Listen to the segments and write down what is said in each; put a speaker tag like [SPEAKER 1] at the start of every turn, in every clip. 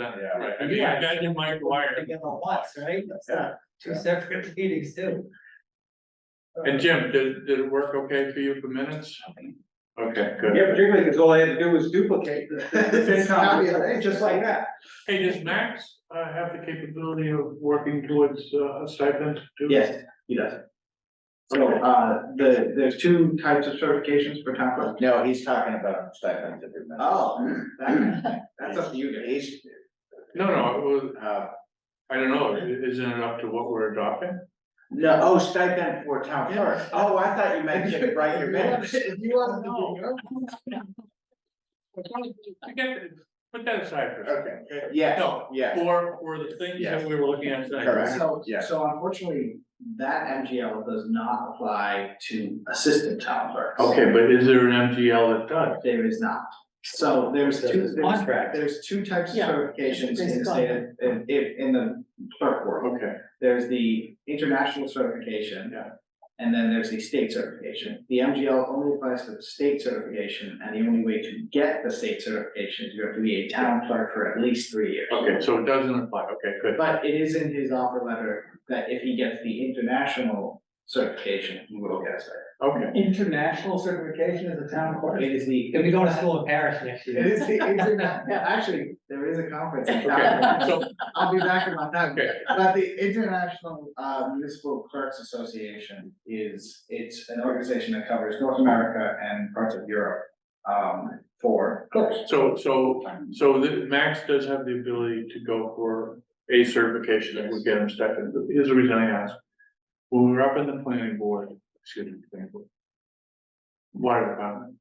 [SPEAKER 1] Yeah.
[SPEAKER 2] Right, I mean, you
[SPEAKER 3] Yeah.
[SPEAKER 2] got your Mike Wire.
[SPEAKER 3] Together once, right? That's not two
[SPEAKER 1] Yeah.
[SPEAKER 3] separate meetings too.
[SPEAKER 2] And Jim, did, did it work okay for you for minutes? Okay, good.
[SPEAKER 1] Yeah, particularly because all I had to do was duplicate the, the same copy, just like that.
[SPEAKER 2] Hey, does Max, uh, have the capability of working towards uh, a stipend? too?
[SPEAKER 1] Yes, he does. So, uh, the, there's two types of certifications for town clerk.
[SPEAKER 4] No, he's talking about stipends every month.
[SPEAKER 1] Oh, that- that's up to you guys.
[SPEAKER 4] He's,
[SPEAKER 2] No, no, it was,
[SPEAKER 4] uh,
[SPEAKER 2] I don't know, i- isn't it up to what we're adopting?
[SPEAKER 4] no, oh, stipend for town clerk. Oh, I thought you meant to write your minutes.
[SPEAKER 3] If you want to do your own,
[SPEAKER 2] Forget it. put that aside for a second.
[SPEAKER 4] Okay, yeah,
[SPEAKER 2] No,
[SPEAKER 4] yeah,
[SPEAKER 2] for, for the things that we were looking at tonight.
[SPEAKER 4] Correct.
[SPEAKER 1] So,
[SPEAKER 4] Yeah.
[SPEAKER 1] so unfortunately, that MGL does not apply to assistant town clerks.
[SPEAKER 2] Okay, but is there an MGL that does?
[SPEAKER 1] There is not. So there's two,
[SPEAKER 3] There's a
[SPEAKER 1] there's,
[SPEAKER 3] contract.
[SPEAKER 1] there's two types of
[SPEAKER 3] Yeah.
[SPEAKER 1] certifications in the
[SPEAKER 3] Based on-
[SPEAKER 1] state, of- in, in in the clerk world.
[SPEAKER 2] Okay,
[SPEAKER 1] There's the international certification.
[SPEAKER 2] Yeah.
[SPEAKER 1] And then there's the state certification. The MGL only applies to the state certification, and the only way to get the state certification is you have to be a town clerk for at least three years.
[SPEAKER 2] okay, so it doesn't apply, okay, good.
[SPEAKER 1] But it is in his offer letter that if he gets the international certification, he will get it.
[SPEAKER 2] Okay,
[SPEAKER 3] International certification as a town clerk.
[SPEAKER 1] It is the.
[SPEAKER 3] If we go to school in Paris next
[SPEAKER 1] It
[SPEAKER 3] year.
[SPEAKER 1] is the interna- yeah, actually, there is a conference. in
[SPEAKER 2] okay,
[SPEAKER 1] town.
[SPEAKER 2] so,
[SPEAKER 1] I'll be back in my time.
[SPEAKER 2] okay,
[SPEAKER 1] But the International uh, Municipal Clerks Association is, it's an organization that covers North America and parts of Europe um, for clerks.
[SPEAKER 2] so, so,
[SPEAKER 4] Um,
[SPEAKER 2] so the, Max does have the ability to go for a certification that would get him started, but here's the reason I ask. When we were up in the planning board, excuse me, planning board. Water department.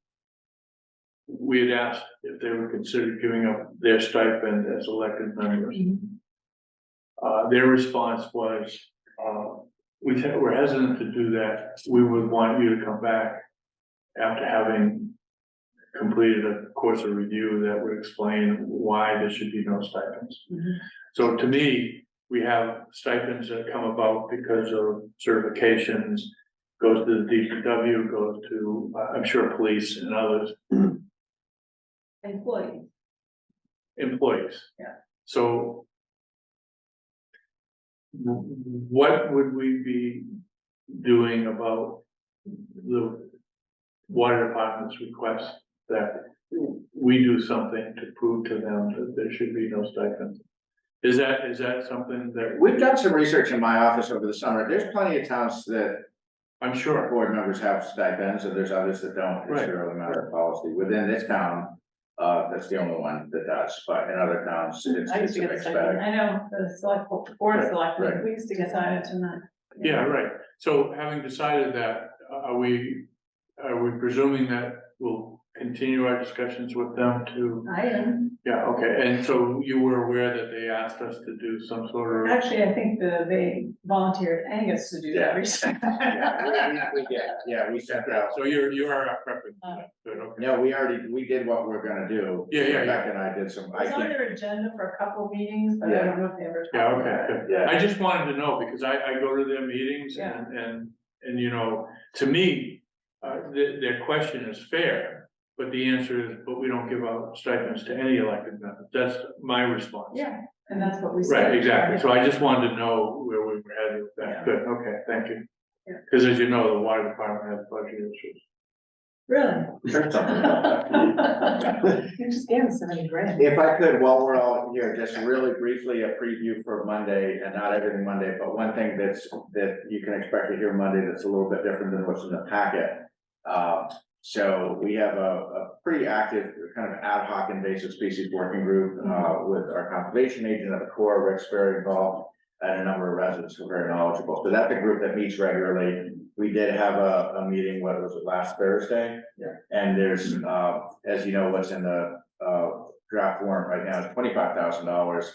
[SPEAKER 2] We had asked if they would consider giving up their stipend as elected members. Uh, their response was, uh, we, te- we're hesitant to do that, we would want you to come back after having completed a course of review that would explain why there should be no stipends.
[SPEAKER 3] Mhm.
[SPEAKER 2] So to me, we have stipends that come about because of certifications, goes to the DPW, goes to, uh, I'm sure, police and others,
[SPEAKER 5] employees.
[SPEAKER 2] employees.
[SPEAKER 3] Yeah.
[SPEAKER 2] So. w- What would we be doing about the water department's request that we do something to prove to them that there should be no stipend? Is that, is that something that,
[SPEAKER 4] we've done some research in my office over the summer. There's plenty of towns that
[SPEAKER 2] I'm sure,
[SPEAKER 4] board members have stipends, and there's others that don't. It's
[SPEAKER 2] Right.
[SPEAKER 4] really a matter of policy. Within this town, uh, that's the only one that does, but in other towns, it's
[SPEAKER 5] I used
[SPEAKER 4] it's
[SPEAKER 5] to
[SPEAKER 4] a
[SPEAKER 5] get a
[SPEAKER 4] mixed
[SPEAKER 5] stipend,
[SPEAKER 4] bag.
[SPEAKER 5] I know, the select, bo- board of
[SPEAKER 2] Right,
[SPEAKER 5] selectmen,
[SPEAKER 4] right.
[SPEAKER 5] we used to get started tonight.
[SPEAKER 2] yeah, right. So having decided that, are we, are we presuming that we'll continue our discussions with them to?
[SPEAKER 5] I am,
[SPEAKER 2] Yeah, okay, and so you were aware that they asked us to do some sort of,
[SPEAKER 5] actually, I think the, they volunteered Angus to do
[SPEAKER 4] Yeah.
[SPEAKER 5] that research.
[SPEAKER 4] Yeah, we- we- Yeah, yeah, we sent out.
[SPEAKER 2] so you're, you are prepping,
[SPEAKER 5] Uh.
[SPEAKER 2] good, okay.
[SPEAKER 4] No, we already, we did what we're gonna do.
[SPEAKER 2] Yeah, yeah, yeah.
[SPEAKER 4] Rebecca and I did some, I
[SPEAKER 5] It's on
[SPEAKER 4] can't,
[SPEAKER 5] their agenda for a couple of meetings, but I
[SPEAKER 4] Yeah.
[SPEAKER 5] don't know if they ever.
[SPEAKER 2] Yeah,
[SPEAKER 5] talked
[SPEAKER 2] okay,
[SPEAKER 5] about it.
[SPEAKER 2] good.
[SPEAKER 4] yeah,
[SPEAKER 2] I just wanted to know, because I, I go to their meetings and, and, and you know, to me, uh, their, their question is fair, but the answer is, but we don't give out stipends to any elected member, that's my response.
[SPEAKER 5] Yeah, and that's what we said.
[SPEAKER 2] Right, exactly, so I just wanted to know where we were headed with
[SPEAKER 4] Yeah.
[SPEAKER 2] that, good, okay, thank you.
[SPEAKER 5] Yeah.
[SPEAKER 2] Cause as you know, the water department has budget issues.
[SPEAKER 5] Really?
[SPEAKER 4] there's something about that.
[SPEAKER 5] You just gave us so many grand.
[SPEAKER 4] If I could, while we're all here, just really briefly, a preview for Monday, and not everything Monday, but one thing that's, that you can expect to hear Monday that's a little bit different than what's in the packet. Um, so we have a, a pretty active kind of ad hoc invasive species working group, uh, with our conservation agent at the core, Rick's very involved. And a number of residents who are very knowledgeable, so that's a group that meets regularly. We did have a, a meeting, what was it, last Thursday?
[SPEAKER 1] Yeah.
[SPEAKER 4] And there's, uh, as you know, what's in the, uh, draft warrant right now is twenty-five thousand dollars.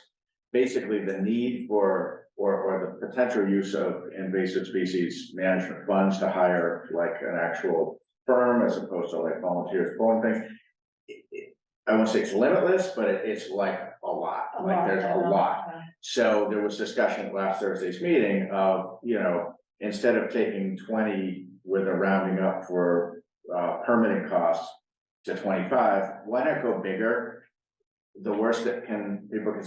[SPEAKER 4] Basically, the need for, or, or the potential use of invasive species management funds to hire like an actual firm as opposed to like volunteers pulling things. It- it- I won't say it's limitless, but it- it's like a lot,
[SPEAKER 5] A
[SPEAKER 4] like
[SPEAKER 5] lot,
[SPEAKER 4] there's
[SPEAKER 5] yeah,
[SPEAKER 4] a lot.
[SPEAKER 5] yeah.
[SPEAKER 4] So there was discussion at last Thursday's meeting of, you know, instead of taking twenty with a rounding up for uh permanent costs to twenty-five, why not go bigger? The worst that can, people can